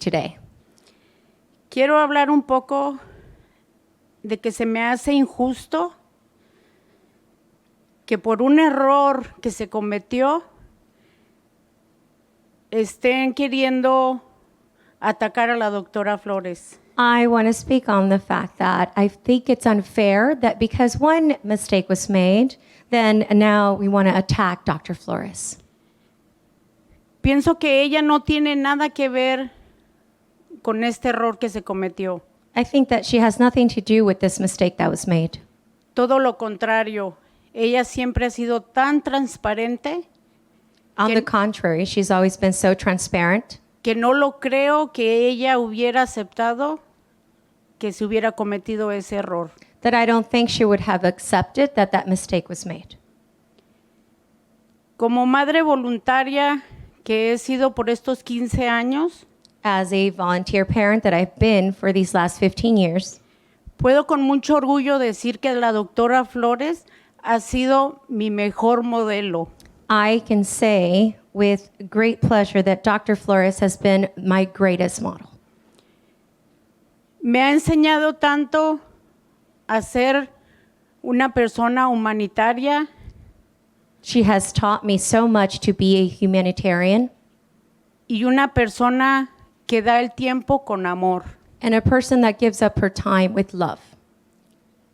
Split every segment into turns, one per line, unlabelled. today.
Quiero hablar un poco de que se me hace injusto que por un error que se cometió estén queriendo atacar a la doctora Flores.
I want to speak on the fact that I think it's unfair that because one mistake was made, then now we want to attack Dr. Flores.
Pienso que ella no tiene nada que ver con este error que se cometió.
I think that she has nothing to do with this mistake that was made.
Todo lo contrario, ella siempre ha sido tan transparente
On
Can-
the contrary, she's always been so transparent.
que no lo creo que ella hubiera aceptado que se hubiera cometido ese error.
that I don't think she would have accepted that that mistake was made.
Como madre voluntaria que he sido por estos 15 años,
As a volunteer parent that I've been for these last 15 years,
puedo con mucho orgullo decir que la doctora Flores ha sido mi mejor modelo.
I can say with great pleasure that Dr. Flores has been my greatest model.
Me ha enseñado tanto a ser una persona humanitaria,
She has taught me so much to be a humanitarian
y una persona que da el tiempo con amor.
and a person that gives up her time with love.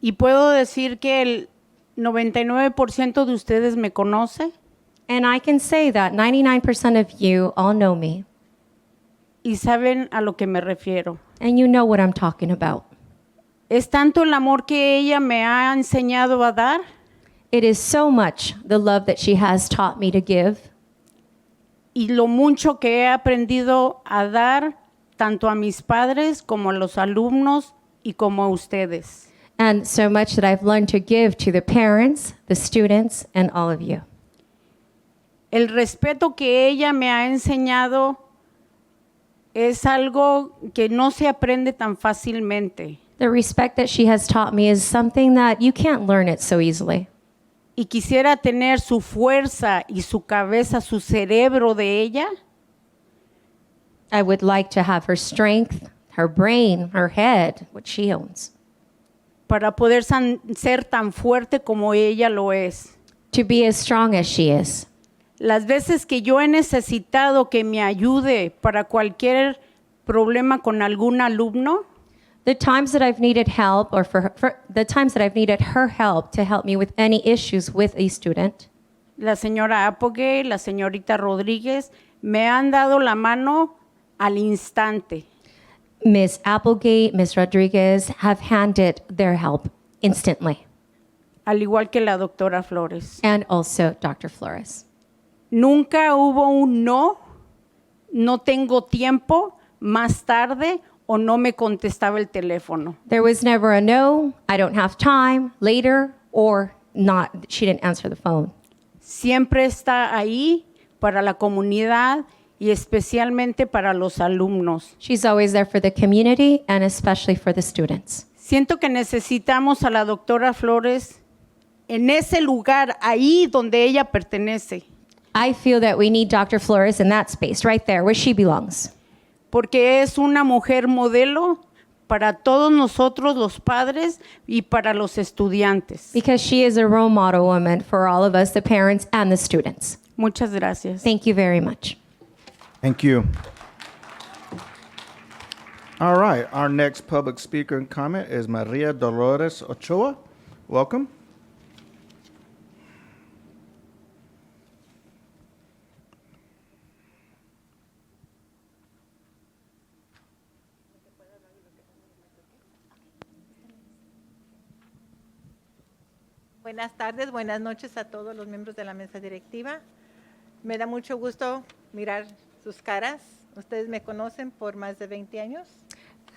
Y puedo decir que el 99% de ustedes me conoce
And I can say that 99% of you all know me
y saben a lo que me refiero.
and you know what I'm talking about.
Es tanto el amor que ella me ha enseñado a dar
It is so much the love that she has taught me to give
y lo mucho que he aprendido a dar tanto a mis padres como a los alumnos y como a ustedes.
and so much that I've learned to give to the parents, the students, and all of you.
El respeto que ella me ha enseñado es algo que no se aprende tan fácilmente.
The respect that she has taught me is something that you can't learn it so easily.
y quisiera tener su fuerza y su cabeza, su cerebro de ella,
I would like to have her strength, her brain, her head, what she owns,
para poder san- ser tan fuerte como ella lo es.
to be as strong as she is.
Las veces que yo he necesitado que me ayude para cualquier problema con algún alumno,
The times that I've needed help, or for, her, for the times that I've needed her help to help me with any issues with a student,
la señora Apogee, la señorita Rodríguez, me han dado la mano al instante.
Ms. Applegate, Ms. Rodriguez have handed their help instantly,
al igual que la doctora Flores.
and also Dr. Flores.
Nunca hubo un no, no tengo tiempo, más tarde o no me contestaba el teléfono.
There was never a no, I don't have time, later, or not, she didn't answer the phone.
Siempre está ahí para la comunidad y especialmente para los alumnos.
She's always there for the community and especially for the students.
Siento que necesitamos a la doctora Flores en ese lugar, ahí donde ella pertenece,
I feel that we need Dr. Flores in that space, right there, where she belongs.
porque es una mujer modelo para todos nosotros los padres y para los estudiantes.
Because she is a role model woman for all of us, the parents and the students.
Muchas gracias.
Thank you very much.
Thank you. All right, our next public speaker and comment is Maria Dolores Ochoa. Welcome.
Buenas tardes, buenas noches a todos los miembros de la mesa directiva. Me da mucho gusto mirar sus caras. Ustedes me conocen por más de 20 años.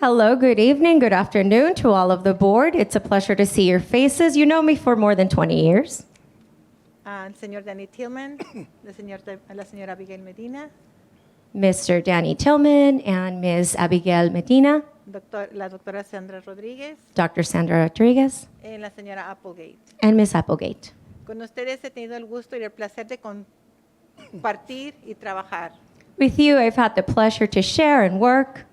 Hello, good evening, good afternoon to all of the board. It's a pleasure to see your faces. You know me for more than 20 years.
Al señor Danny Tillman, la señor- a la señora Abigail Medina,
Mr. Danny Tillman and Ms. Abigail Medina,
doctor- la doctora Sandra Rodríguez,
Dr. Sandra Rodriguez,
eh, la señora Applegate.
and Ms. Applegate.
Con ustedes he tenido el gusto y el placer de compartir y trabajar.
With you, I've had the pleasure to share and work